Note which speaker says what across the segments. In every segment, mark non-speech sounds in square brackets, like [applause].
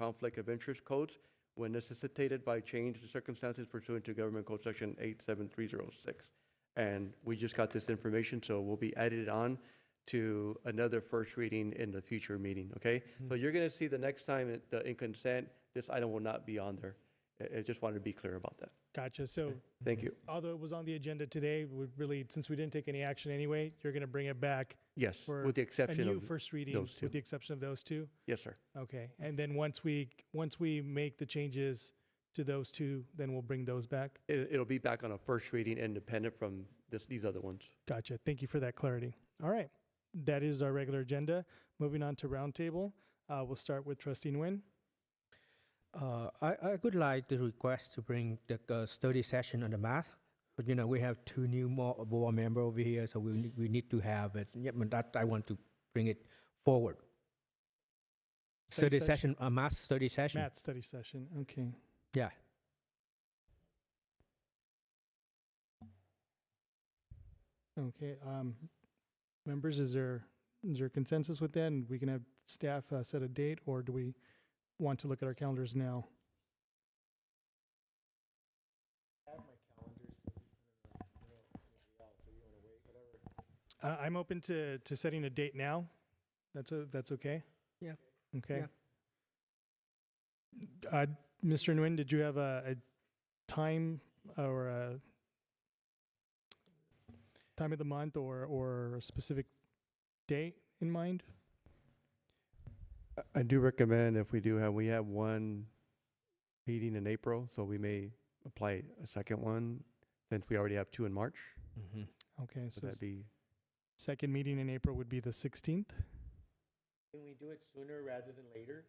Speaker 1: conflict of interest codes when necessitated by change in circumstances pursuant to Government Code Section 87306. And we just got this information, so we'll be added on to another first reading in the future meeting, okay? So
Speaker 2: Hmm.
Speaker 1: you're going to see the next time it- the in consent, this item will not be on there. I I just wanted to be clear about that.
Speaker 2: Gotcha. So
Speaker 1: Thank you.
Speaker 2: although it was on the agenda today, we really, since we didn't take any action anyway, you're going to bring it back
Speaker 1: Yes,
Speaker 2: Mm-hmm. for
Speaker 1: with the
Speaker 2: a
Speaker 1: exception
Speaker 2: new
Speaker 1: of,
Speaker 2: first reading,
Speaker 1: those two.
Speaker 2: with the exception of those two?
Speaker 1: yes, sir.
Speaker 2: Okay. And then once we, once we make the changes to those two, then we'll bring those back?
Speaker 1: It- It'll be back on a first reading independent from this, these other ones.
Speaker 2: Gotcha. Thank you for that clarity. All right. That is our regular agenda. Moving on to roundtable, uh, we'll start with Trustee Nguyen.
Speaker 3: Uh, I, I would like to request to bring the uh, study session on the math. But you know, we have two new more board member over here, so we need, we need to have it. Yeah, but that I want to bring it forward.
Speaker 2: Study
Speaker 3: Study,
Speaker 2: session?
Speaker 3: session, a math study session.
Speaker 2: Matt study session. Okay.
Speaker 3: Yeah.
Speaker 2: Okay. Um, members, is there, is there consensus with that? And we can have staff uh, set a date or do we want to look at our calendars now? Uh, I'm open to, to setting a date now. That's, o- that's okay?
Speaker 3: Yeah.
Speaker 2: Okay. Uh, Mr. Nguyen, did you have a, a time uh, or a time of the month or, or a specific date in mind?
Speaker 1: I- I do recommend if we do have, we have one meeting in April, so we may apply a second one since we already have two in March.
Speaker 3: Mm-hmm.
Speaker 2: Okay, so
Speaker 1: Would that be,
Speaker 2: second meeting in April would be the Uh, 16th.
Speaker 4: Can we do it sooner rather than later?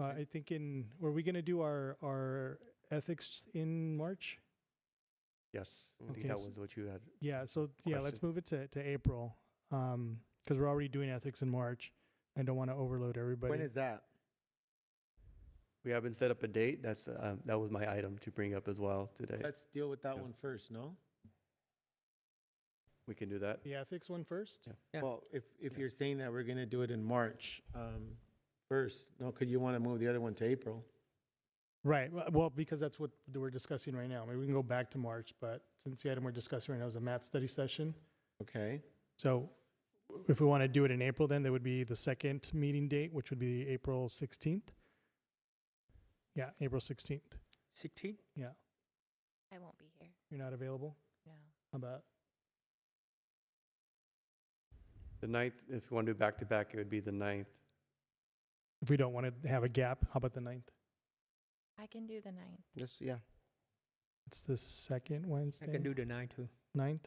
Speaker 2: Uh, I think in, were we going to do our, our ethics in March?
Speaker 1: yes, I
Speaker 2: Okay,
Speaker 1: think that
Speaker 2: so-
Speaker 1: was what you had.
Speaker 2: Yeah, so yeah, let's
Speaker 1: Question.
Speaker 2: move it to, to April because we're already doing ethics in March. I don't want to overload everybody.
Speaker 4: When is that?
Speaker 1: We haven't set up a date. That's, um, that was my item to bring up as well
Speaker 2: Uh,
Speaker 1: today.
Speaker 4: Let's deal with that
Speaker 1: Yeah.
Speaker 4: one first, no?
Speaker 1: We can do that.
Speaker 2: the ethics one first?
Speaker 3: Yeah.
Speaker 4: Well, if, if you're saying that we're gonna do it in March, um, first, no, because you want to move the other one to April.
Speaker 2: Right. w- Well, because that's what we're discussing right now. I mean, we can go back to March, but since the item we're discussing right now is a math study session,
Speaker 4: Okay,
Speaker 2: so if we want to do it in April, then there would be the second meeting date, which would be April 16th. Yeah, April 16th.
Speaker 3: 16?
Speaker 2: Yeah.
Speaker 5: I won't be here.
Speaker 2: You're not available?
Speaker 5: No.
Speaker 2: How about
Speaker 1: The ninth, if you want to do back to back, it would be the ninth.
Speaker 2: if we don't want to have a gap? How about the ninth?
Speaker 5: I can do the ninth.
Speaker 3: Yes, yeah.
Speaker 2: It's the second Wednesday.
Speaker 3: I can do the nine too.
Speaker 2: ninth.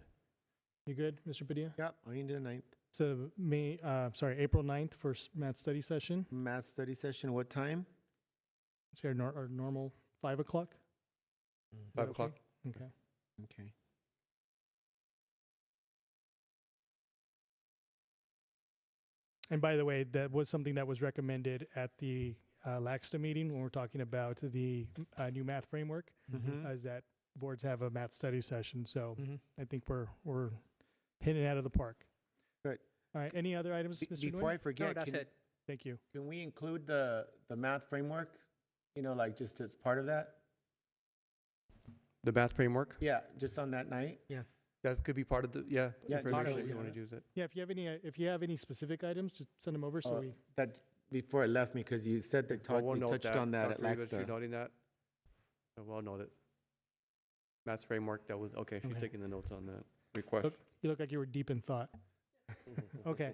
Speaker 2: You good, Mr. Padilla?
Speaker 4: yep, I can do the ninth.
Speaker 2: So May, uh, sorry, April 9th for s- math study session.
Speaker 4: Math study session, what time?
Speaker 2: It's our, nor- our normal five o'clock. Is that
Speaker 1: Five
Speaker 2: okay?
Speaker 1: o'clock.
Speaker 2: Okay.
Speaker 4: Okay.
Speaker 2: And by the way, that was something that was recommended at the uh, LAXTA meeting when we're talking about the uh, new math framework,
Speaker 3: Mm-hmm.
Speaker 4: Mhm.
Speaker 2: is that boards have a math study session.
Speaker 4: Mm-hmm.
Speaker 2: So
Speaker 3: Mhm.
Speaker 2: I think we're we're hitting it out of the park.
Speaker 4: Good.
Speaker 2: All right. Any other items,
Speaker 4: Be-
Speaker 2: Mr.
Speaker 4: Before I
Speaker 2: Nguyen?
Speaker 3: No,
Speaker 4: forget,
Speaker 3: that's
Speaker 4: can,
Speaker 3: it.
Speaker 2: Thank you.
Speaker 4: can we include the, the math framework? You know, like just as part of that?
Speaker 1: The math framework,
Speaker 4: Yeah, just on that night?
Speaker 1: that could be part of the, yeah.
Speaker 4: Yeah,
Speaker 1: information
Speaker 2: totally,
Speaker 1: If you want
Speaker 4: yeah.
Speaker 1: to use it.
Speaker 2: Yeah. If you have any, uh, if you have any specific items, just send them over so
Speaker 4: Uh,
Speaker 2: we
Speaker 4: That, before it left me, because you said that,
Speaker 1: Well,
Speaker 4: talk-
Speaker 1: we'll
Speaker 4: you
Speaker 1: note
Speaker 4: touched on that at
Speaker 1: Dr. Rivas, You're
Speaker 4: Laxta.
Speaker 1: noting that? Uh, Well noted. Math framework, that was, okay, she's
Speaker 2: Okay.
Speaker 1: taking the notes on that request.
Speaker 2: Look- You look like you were deep in
Speaker 4: [laughs]
Speaker 2: thought. Okay.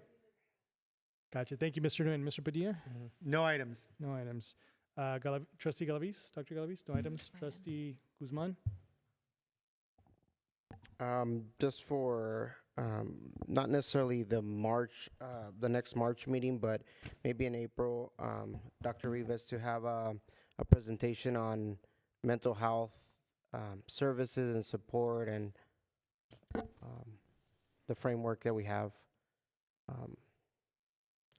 Speaker 2: Gotcha. Thank you, Mr. Nguyen. Mr. Padilla?
Speaker 3: Mm-hmm.
Speaker 4: No items.
Speaker 2: No items. Uh, Galav- Trustee Galavis, Dr. Galavis, no items.
Speaker 5: No items.
Speaker 2: Trustee Guzman?
Speaker 6: Um, just for um, not necessarily the March, uh, the next March meeting, but maybe in April, um, Dr. Rivas to have a, a presentation on mental health um, services and support and um, the framework that we have. Um,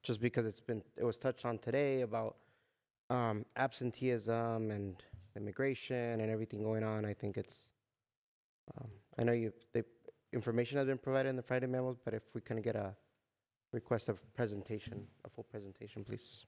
Speaker 6: just because it's been, it was touched on today about um, absenteeism and immigration and everything going on. I think it's um, I know you, the information has been provided in the Friday memos, but if we can get a request of presentation, a full presentation, please.